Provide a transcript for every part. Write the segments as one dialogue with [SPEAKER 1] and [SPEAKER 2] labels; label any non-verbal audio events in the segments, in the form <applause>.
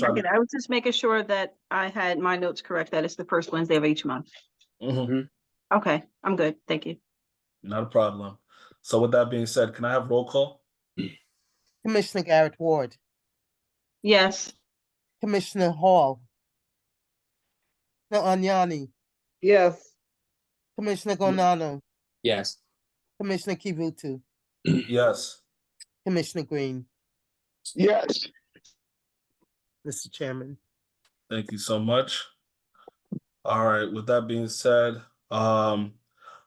[SPEAKER 1] Yeah, I was just making sure that I had my notes correct, that it's the first Wednesday of each month.
[SPEAKER 2] Mhm.
[SPEAKER 1] Okay, I'm good, thank you.
[SPEAKER 2] Not a problem. So with that being said, can I have roll call?
[SPEAKER 3] Commissioner Garrett Ward,
[SPEAKER 1] Yes,
[SPEAKER 3] Commissioner Hall, Commissioner Agnani,
[SPEAKER 4] Yes,
[SPEAKER 3] Commissioner Gonano,
[SPEAKER 5] Yes.
[SPEAKER 3] Commissioner Kivutu,
[SPEAKER 2] Yes.
[SPEAKER 3] Commissioner Green,
[SPEAKER 4] yes,
[SPEAKER 3] Mr. Chairman.
[SPEAKER 2] Thank you so much. All right, with that being said, um,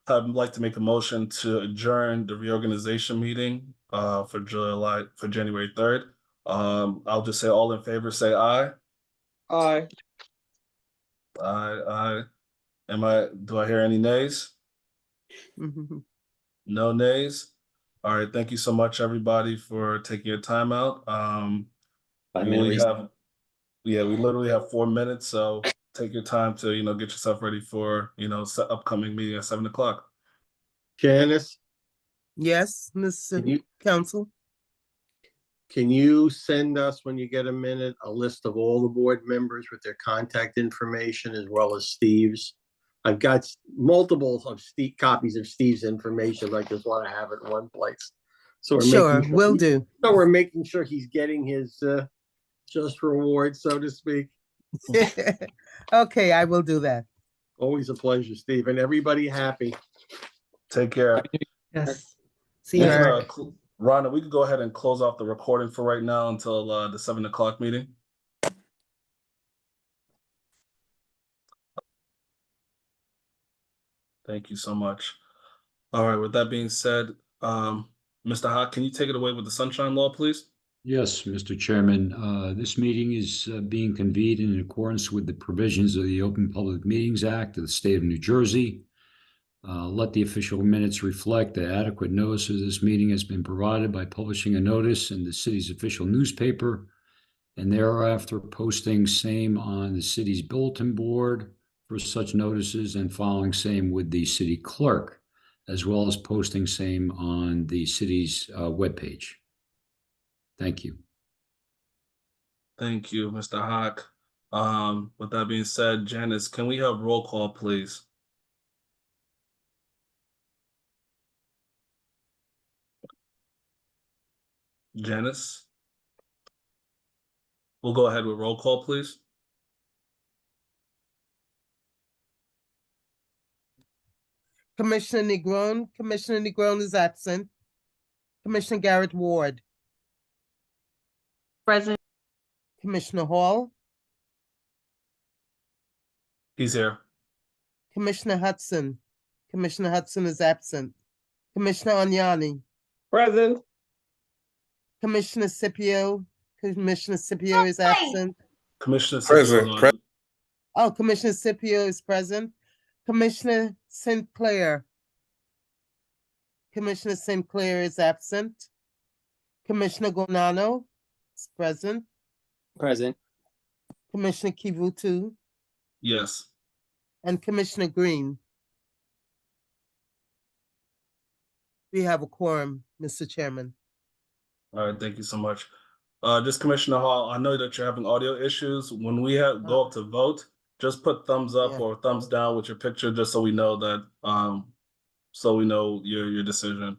[SPEAKER 2] I'd like to make a motion to adjourn the reorganization meeting uh for July, for January third. Um, I'll just say all in favor, say aye.
[SPEAKER 4] aye,
[SPEAKER 2] Aye, aye. Am I, do I hear any nays?
[SPEAKER 3] Mm-hmm.
[SPEAKER 2] No nays? All right, thank you so much, everybody, for taking your time out. Um,
[SPEAKER 5] Five
[SPEAKER 2] We only
[SPEAKER 5] minutes.
[SPEAKER 2] have, yeah, we literally have four minutes, so take your time to, you know, get yourself ready for, you know, se- upcoming meeting at seven o'clock.
[SPEAKER 6] Janice,
[SPEAKER 3] Yes,
[SPEAKER 6] can
[SPEAKER 3] Mr.
[SPEAKER 6] you,
[SPEAKER 3] Council.
[SPEAKER 6] can you send us, when you get a minute, a list of all the board members with their contact information as well as Steve's? I've got s- multiples of Steve, copies of Steve's information. I just want to have it in one place. So we're
[SPEAKER 3] Sure,
[SPEAKER 6] making
[SPEAKER 3] will do. <laughs>
[SPEAKER 6] So we're making sure he's getting his, uh, just reward, so to speak.
[SPEAKER 3] Okay, I will do that.
[SPEAKER 6] Always a pleasure, Steve, and everybody happy.
[SPEAKER 2] Take care.
[SPEAKER 3] Yes. See you.
[SPEAKER 2] We can,
[SPEAKER 3] Eric.
[SPEAKER 2] uh, cl- Rhonda, we could go ahead and close off the recording for right now until, uh, the seven o'clock meeting. Thank you so much. All right, with that being said, um, Mr. Hawk, can you take it away with the sunshine law, please?
[SPEAKER 7] Yes, Mr. Chairman, uh, this meeting is uh, being convened in accordance with the provisions of the Open Public Meetings Act of the State of New Jersey. Uh, Let the official minutes reflect that adequate notice of this meeting has been provided by publishing a notice in the city's official newspaper and thereafter posting same on the city's bulletin board for such notices and following same with the city clerk, as well as posting same on the city's uh, webpage. Thank you.
[SPEAKER 2] Thank you, Mr. Hawk. Um, with that being said, Janice, can we have roll call, please? Janice? We'll go ahead with roll call, please.
[SPEAKER 3] Commissioner Negron, Commissioner Negron is absent. Commissioner Garrett Ward,
[SPEAKER 1] present,
[SPEAKER 3] Commissioner Hall,
[SPEAKER 2] He's here.
[SPEAKER 3] Commissioner Hudson. Commissioner Hudson is absent. Commissioner Agnani,
[SPEAKER 4] present,
[SPEAKER 3] Commissioner Scipio, Commissioner Scipio is absent.
[SPEAKER 2] Commissioner.
[SPEAKER 8] Present,
[SPEAKER 2] Siscoto.
[SPEAKER 8] present.
[SPEAKER 3] Oh, Commissioner Scipio is present. Commissioner Sinclair. Commissioner Sinclair is absent. Commissioner Gonano is present.
[SPEAKER 5] Present.
[SPEAKER 3] Commissioner Kivutu
[SPEAKER 2] Yes,
[SPEAKER 3] and Commissioner Green. We have a quorum, Mr. Chairman.
[SPEAKER 2] all right, thank you so much. Uh, just Commissioner Hall, I know that you're having audio issues. When we have, go up to vote, just put thumbs up
[SPEAKER 3] Yeah.
[SPEAKER 2] or thumbs down with your picture, just so we know that, um, so we know your, your decision.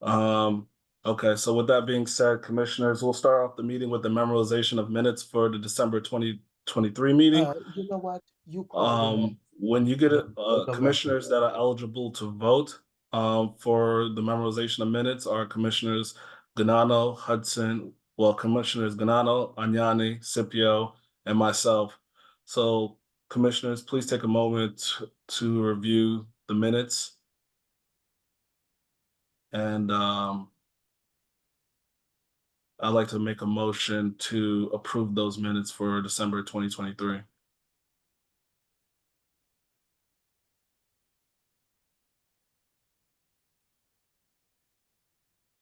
[SPEAKER 2] Um, okay, so with that being said, Commissioners, we'll start off the meeting with the memorization of minutes for the December twenty twenty-three meeting.
[SPEAKER 3] Uh, You know what? You call the roll.
[SPEAKER 2] Um, when you get,
[SPEAKER 3] Vote
[SPEAKER 2] uh,
[SPEAKER 3] the
[SPEAKER 2] commissioners that are eligible to vote, um, for the memorization of minutes are commissioners Ganano, Hudson, well, commissioners Ganano, Agnani, Scipio, and myself. So commissioners, please take a moment to review the minutes. And, um, I'd like to make a motion to approve those minutes for December twenty twenty-three.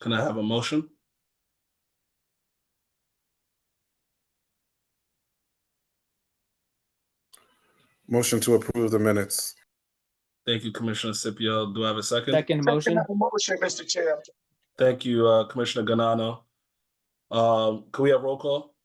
[SPEAKER 2] Can I have a motion?
[SPEAKER 8] Motion to approve the minutes.
[SPEAKER 2] Thank you, Commissioner Scipio. Do I have a second?
[SPEAKER 5] Second
[SPEAKER 4] second
[SPEAKER 5] motion?
[SPEAKER 4] motion, Mr. Chair,
[SPEAKER 2] Thank you, uh, Commissioner Ganano. Um, can we have roll call?